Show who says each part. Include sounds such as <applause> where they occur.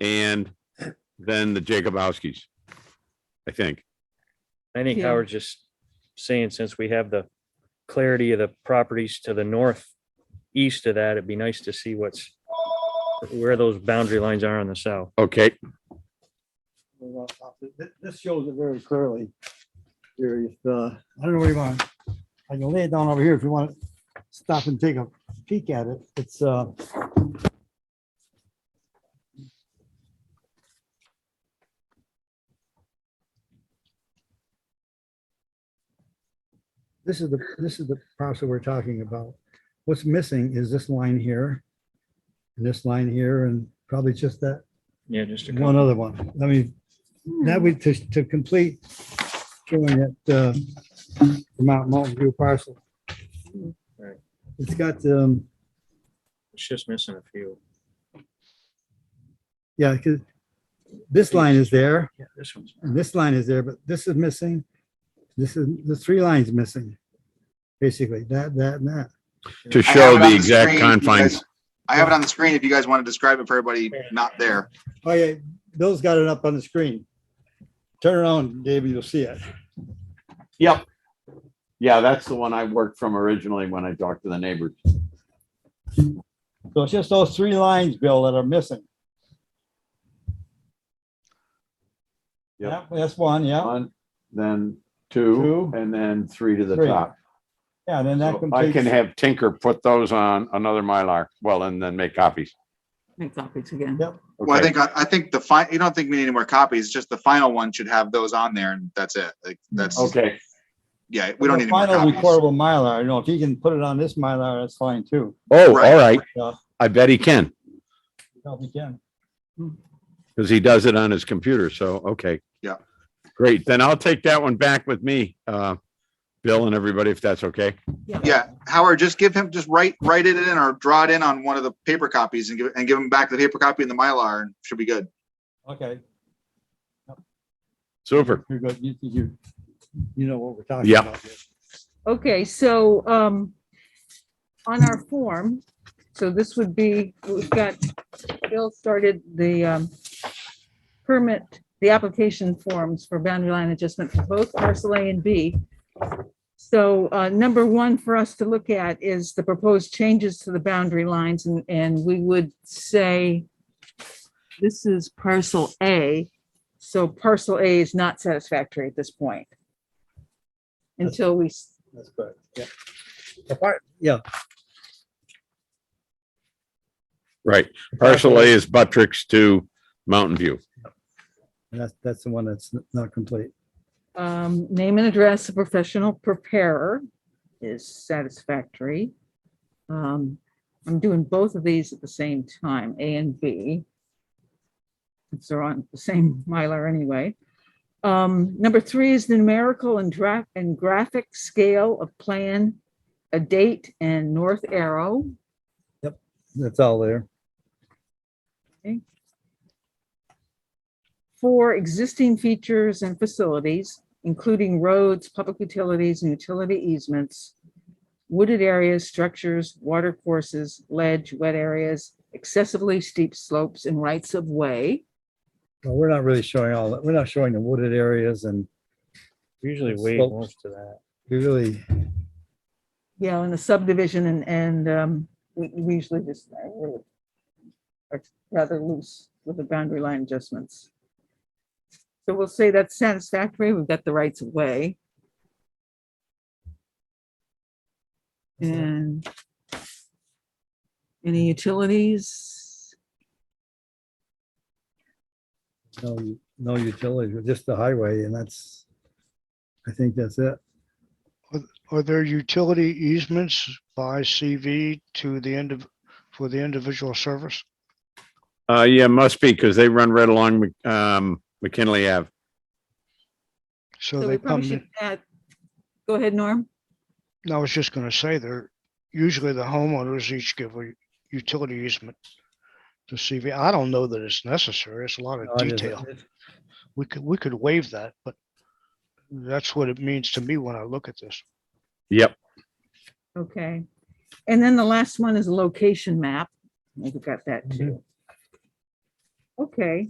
Speaker 1: and then the Jacobowskis. I think.
Speaker 2: I think
Speaker 3: Yeah.
Speaker 2: Howard's just saying, since we have the clarity of the properties to the north east of that, it'd be nice to see what's where those boundary lines are on the south.
Speaker 1: Okay,
Speaker 4: We're off topic. Th- This shows it very clearly. Here, if, uh, I don't know where you want, it. I can lay it down over here if you want to stop and take a peek at it. It's, uh, this is the, this is the parcel we're talking about. What's missing is this line here, and this line here, and probably just that
Speaker 2: Yeah, just a couple.
Speaker 4: one other one. I mean, that we, to, to complete showing it, uh, Mount Mountain View parcel.
Speaker 2: Right.
Speaker 4: It's got, um,
Speaker 2: It's just missing a few.
Speaker 4: yeah, because this line is there,
Speaker 2: Yeah, this one's.
Speaker 4: and this line is there, but this is missing. This is, the three lines missing, basically, that, that, and that.
Speaker 1: to
Speaker 5: I
Speaker 1: show
Speaker 5: have it on
Speaker 1: the exact
Speaker 5: screen if you
Speaker 1: confines.
Speaker 5: guys- I have it on the screen if you guys want to describe it for everybody not there.
Speaker 4: Oh, yeah, Bill's got it up on the screen. Turn around, David, you'll see it.
Speaker 6: Yep. Yeah, that's the one I worked from originally when I talked to the neighbors.
Speaker 4: So it's just those three lines, Bill, that are missing. Yeah,
Speaker 6: Yep.
Speaker 4: that's one, yeah.
Speaker 6: One, then two,
Speaker 4: Two.
Speaker 6: and then three to the
Speaker 4: Three.
Speaker 6: top.
Speaker 4: Yeah, and then that
Speaker 6: So I
Speaker 4: completes.
Speaker 6: can have Tinker put those on another Mylar, well, and then make copies.
Speaker 3: Make topics again.
Speaker 5: Well, I
Speaker 6: Okay,
Speaker 5: think, I think the fi, you don't think we need any more copies, just the final one should have those on there and that's it. Like, that's,
Speaker 6: okay,
Speaker 5: yeah, we don't
Speaker 4: The
Speaker 5: need any more
Speaker 4: Final
Speaker 5: copies.
Speaker 4: recordable Mylar, you know, if he can put it on this Mylar, that's fine too.
Speaker 1: Oh, all
Speaker 5: Right.
Speaker 1: right.
Speaker 4: Yeah.
Speaker 1: I bet he can,
Speaker 4: Help he can.
Speaker 1: because he does it on his computer, so, okay.
Speaker 5: Yeah.
Speaker 1: Great, then I'll take that one back with me, uh, Bill and everybody, if that's okay.
Speaker 5: Yeah, Howard, just give him, just write, write it in or draw it in on one of the paper copies and give, and give him back the paper copy and the Mylar and should be good.
Speaker 4: Okay,
Speaker 1: Super.
Speaker 4: you're good. You, you, you know what we're talking
Speaker 1: Yeah.
Speaker 4: about. here.
Speaker 3: Okay, so, um, on our form, so this would be, we've got, Bill started the, um, permit, the application forms for boundary line adjustment for both parcel A and B. So, uh, number one for us to look at is the proposed changes to the boundary lines and, and we would say this is parcel A, so parcel A is not satisfactory at this point. Until we s-
Speaker 4: That's correct, yeah. The part, yeah,
Speaker 1: Right, parcel A is Buttricks to Mountain View.
Speaker 4: and that's, that's the one that's not complete.
Speaker 3: Um, name and address of professional preparer is satisfactory. Um, I'm doing both of these at the same time, A and B. since They're on the same <laughs> Mylar anyway. Um, number three is the numerical and draft and graphic scale of plan, a date and north arrow.
Speaker 4: That's all there.
Speaker 3: for existing features and facilities, including roads, public utilities, and utility easements, wooded areas, structures, water courses, ledge, wet areas, excessively steep slopes and rights of way.
Speaker 4: Well, we're not really showing all that. We're not showing the wooded areas and
Speaker 2: Usually wait
Speaker 4: Slopes.
Speaker 2: most of that.
Speaker 4: we really,
Speaker 3: Yeah, and the subdivision and, and um, we we usually just uh, we're are rather loose with the boundary line adjustments. So we'll say that's satisfactory. We've got the rights of way. And any utilities?
Speaker 4: no, no utilities, just the highway and that's, I think that's it.
Speaker 7: Are there utility easements by CV to the end of, for the individual service?
Speaker 1: Uh, yeah, must be, because they run right along, Mc- um, McKinley Ave.
Speaker 7: So
Speaker 3: So we
Speaker 7: they come,
Speaker 3: probably should add, go ahead, Norm.
Speaker 7: in- I was just gonna say they're usually the homeowners each give a utility easement to CV. I don't know that it's necessary. It's a lot
Speaker 4: No,
Speaker 7: of
Speaker 4: it isn't.
Speaker 7: detail. We could, we could waive that, but that's what it means to me when I look at this.
Speaker 1: Yep,
Speaker 3: Okay.
Speaker 7: Mm-hmm.
Speaker 3: And then the last one is a location map. I think we've got that too. Okay.